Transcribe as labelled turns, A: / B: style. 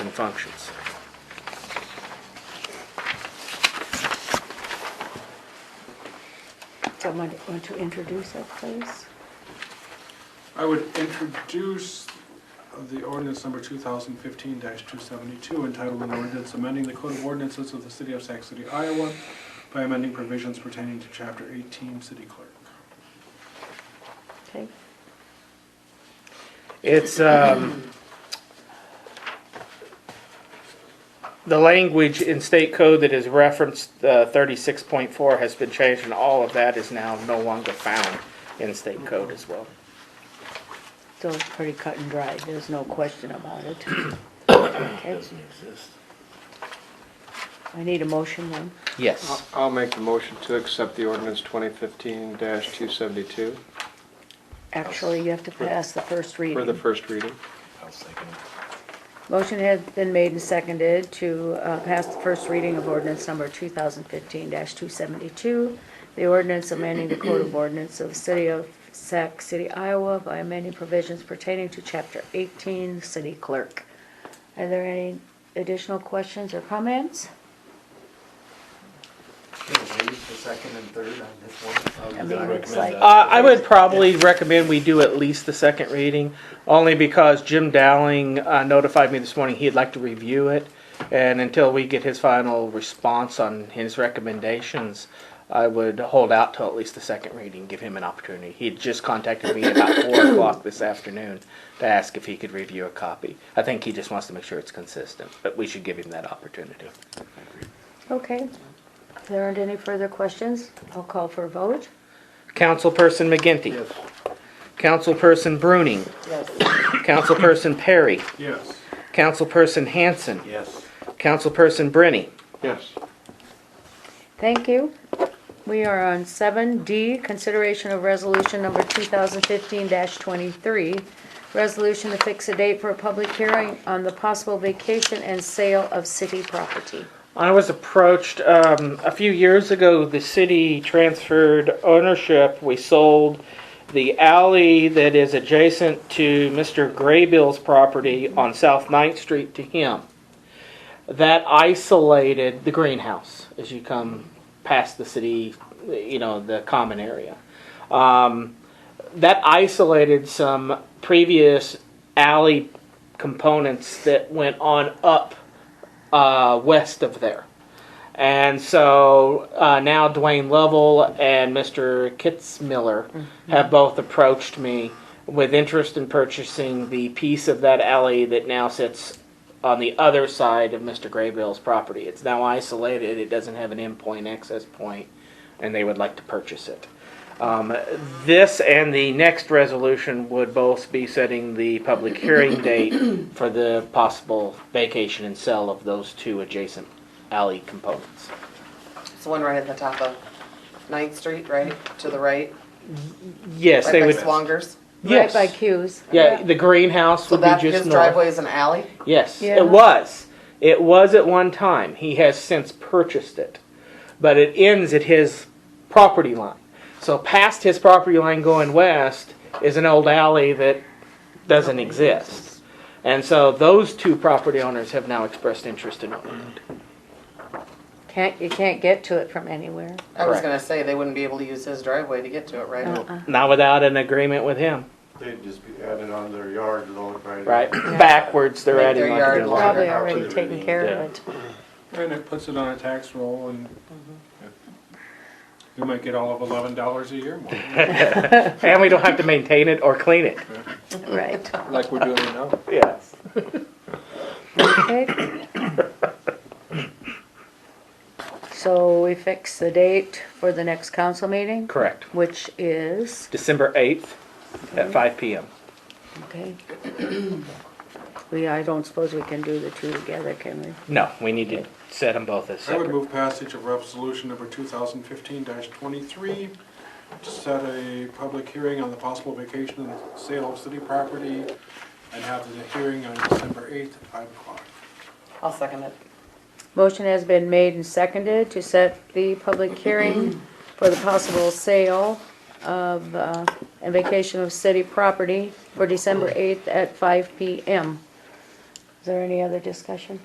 A: and functions.
B: Someone want to introduce it, please?
C: I would introduce the ordinance number 2015-272 entitled an ordinance amending the code of ordinances of the city of Sac City, Iowa by amending provisions pertaining to chapter 18, city clerk.
B: Okay,
A: It's, um, the language in state code that is referenced, uh, thirty-six point four has been changed and all of that is now no longer found in state code as well.
B: so it's pretty cut and dry, there's no question about it. Okay,
D: doesn't exist.
B: I need a motion then.
A: Yes.
E: I'll make the motion to accept the ordinance 2015-272
B: Actually, you have to pass the first
E: for the
B: reading.
E: first reading.
D: I'll second it.
B: Motion has been made and seconded to uh, pass the first reading of ordinance number 2015-272, the ordinance amending the Code of Ordinance of the City of Sac City, Iowa by amending provisions pertaining to Chapter 18, City Clerk. Are there any additional questions or comments?
F: the second and third on this one?
B: I mean, it's like,
A: Uh, I would probably recommend we do at least the second reading, only because Jim Dowling uh, notified me this morning he'd like to review it. And until we get his final response on his recommendations, I would hold out till at least the second reading, give him an opportunity. He had just contacted me about four o'clock this afternoon to ask if he could review a copy. I think he just wants to make sure it's consistent, but we should give him that opportunity.
B: okay. If there aren't any further questions, I'll call for a vote.
A: Councilperson McGinty. Councilperson Bruning. Councilperson Perry.
C: Yes.
A: Councilperson
B: Oh.
A: Hanson.
F: Yes.
A: Councilperson Brenny.
E: Yes.
B: Thank you. We are on seven D, consideration of resolution number two thousand fifteen twenty-three. Resolution to fix a date for a public hearing on the possible vacation and sale of city property.
A: I was approached um, a few years ago. The city transferred ownership. We sold the alley that is adjacent to Mr. Graybill's property on South 9th Street to him. That isolated the greenhouse as you come past the city, you know, the common area. Um, that isolated some previous alley components that went on up uh, west of there. And so uh, now Dwayne Lovell and Mr. Kitzmiller have both approached me with interest in purchasing the piece of that alley that now sits on the other side of Mr. Graybill's property. It's now isolated, it doesn't have an endpoint access point, and they would like to purchase it. Um, this and the next resolution would both be setting the public hearing date for the possible vacation and sale of those two adjacent alley components.
G: It's the one right at the top of Ninth Street, right, to the right,
A: Yes,
G: right
A: they
G: by
A: would.
G: Swangers.
A: Yes.
B: Right by Q's.
A: Yeah, the greenhouse
G: So
A: would be
G: that, his
A: just north.
G: driveway is an alley?
A: Yes,
B: Yeah.
A: it was. It was at one time. He has since purchased it. But it ends at his property line. So past his property line going west is an old alley that doesn't exist. And so those two property owners have now expressed interest in owning it.
B: Can't, you can't get to it from anywhere.
G: I was
A: Correct.
G: gonna say, they wouldn't be able to use his driveway to get to it, right?
B: Uh-uh.
A: Not without an agreement with him.
F: They'd just be added on their yard load, right?
A: Right, backwards, they're
G: Make
A: adding
G: their
A: like
G: yard
A: a
G: longer.
B: Probably
F: how
B: already
F: to-
B: taken care of it.
C: And it puts it on a tax roll and
E: Mm-hmm.
C: we might get all of $11 a year more.
A: And we don't have to maintain it or clean it.
B: Right,
E: Like we're doing now.
A: Yes.
B: okay. So we fix the date for the next council meeting,
A: Correct.
B: which is?
A: December 8th at five PM.
B: Okay. We, I don't suppose we can do the two together, can we?
A: No, we need to set them both as
C: I would
A: separate.
C: move passage of resolution number 2015-23 to set a public hearing on the possible vacation and sale of city property and have the hearing on December 8th at 5 o'clock.
G: I'll second it.
B: Motion has been made and seconded to set the public hearing for the possible sale of, uh, and vacation of city property for December 8th at 5 PM. Is there any other discussion?